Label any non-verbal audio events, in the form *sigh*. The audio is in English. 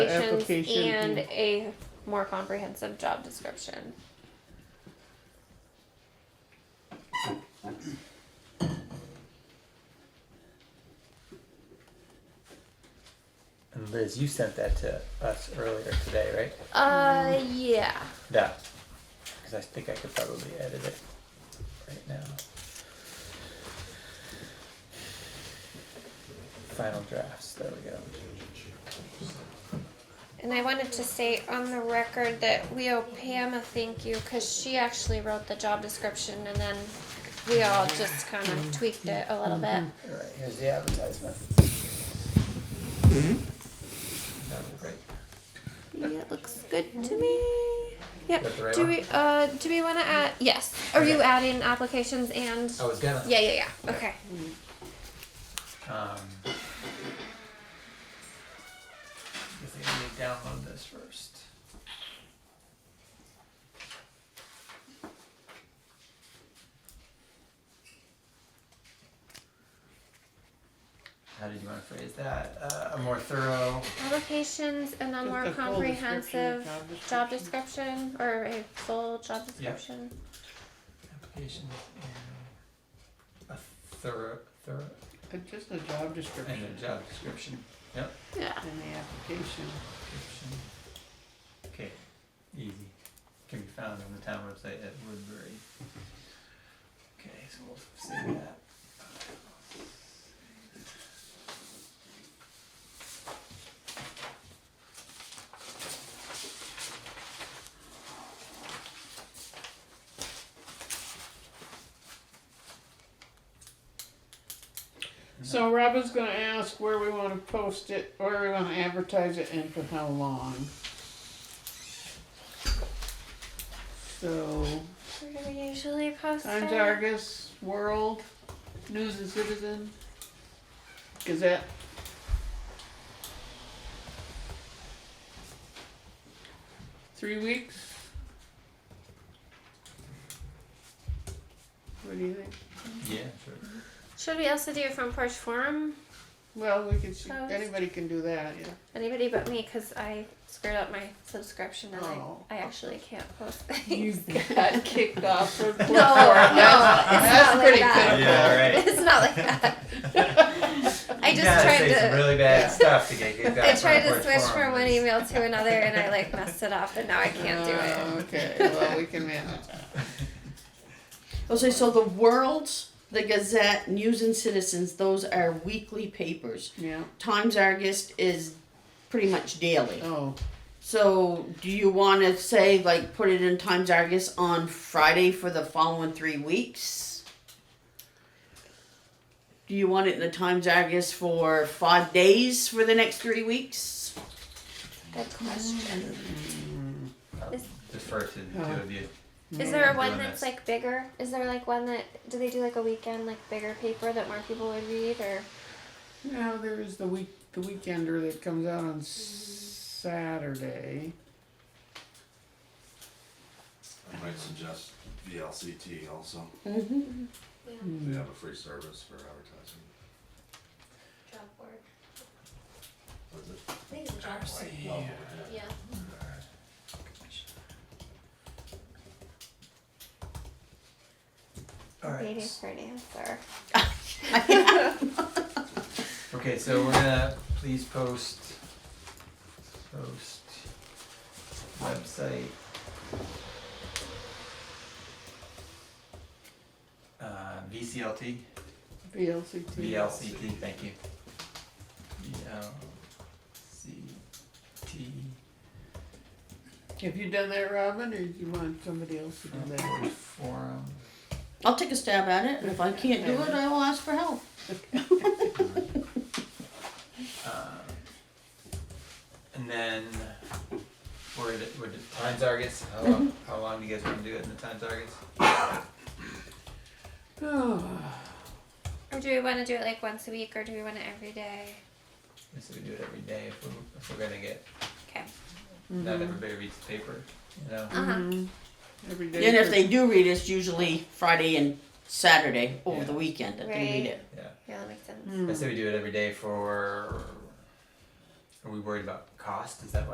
application. and a more comprehensive job description. And Liz, you sent that to us earlier today, right? Uh, yeah. That. Because I think I could probably edit it right now. Final drafts. There we go. And I wanted to say on the record that we owe Pam a thank you because she actually wrote the job description and then we all just kind of tweaked it a little bit. All right, here's the advertisement. Mm-hmm. That was great. Mm-hmm. Yeah, it looks good to me. Mm-hmm. Yep. Got the right Do one? we uh do we want to add? Yes. Are you Okay. adding applications and? I was gonna. Yeah, yeah, yeah. Okay. Um, I think I need to download this first. How did you want to phrase that? Uh, a more thorough. Applications and a Just more a full comprehensive description, job description or a full job description. Applications and a thorough, thorough, Uh, Just a job and description a job description. Yeah. in the application. description. Okay, easy. Can be found on the town website at Woodbury. Okay, so we'll save that. So Robin's gonna ask where we wanna post it, where we wanna advertise it and for how long. So, Where do we usually post Times it? Argus, World, News and Citizen, Gazette. Three weeks? What do you think? Yeah, sure. Should we also do from Porch Forum? Well, we could, see- Post. anybody can do that, yeah. Anybody but me, because I screwed up my subscription and Oh. I, I actually can't post You things. got kicked off for *laughs* no, no, That's that's pretty that. Yeah, right. *laughs* It's not like that. *laughs* I You just gotta tried say some to- really Yeah. bad stuff to get kicked *laughs* out. I of tried to Front Porch switch from Forum. one email to another and I like messed it up and now I *laughs* can't do it. Oh, Okay, well, we can manage that. Okay, Oh, so the World's, the Gazette, News and Citizens, those are weekly papers. Yeah, Times Argus is pretty much daily. oh, So do you want to say like put it in Times Argus on Friday for the following three weeks? Do you want it in the Times Argus for five days for the next three weeks? Good question. hmm, Defer to the two Uh-huh. of you. Is there Mm. one Doing that's this. like bigger? Is there like one that do they do like a weekend like bigger paper that more people would read or now there is the week, the weekender that comes out on Saturday. I might suggest VLCT also. Mm-hmm. They have a free service for advertising. job board? Is it? I think it's a job No, Yeah. yeah. Yeah. All right. Waiting for an answer. Okay, so we're gonna please post, post website. Uh, VCLT, VLCT. VLCT, thank you. VLCT, Have you done that, Robin, or do you want somebody else to do Front that? Porch forum. I'll take a stab at it, and if I can't do it, I will ask for help. Um, and then we're at, we're at time targets. How long, how long do you guys want to do it in the time targets? Oh, Or do we want to do it like once a week or do we want it every day? So we do it every day if we're, if we're gonna get Okay. Mm-hmm. hmm. not Uh-huh. everybody reads the paper, you know. Uh huh. Every day. Then if for- they do read, it's usually Friday and Saturday over Yeah. the weekend that they read Right. it. Yeah, that makes sense. Mm. I say we do it every day for. Are we worried about cost? Is that why?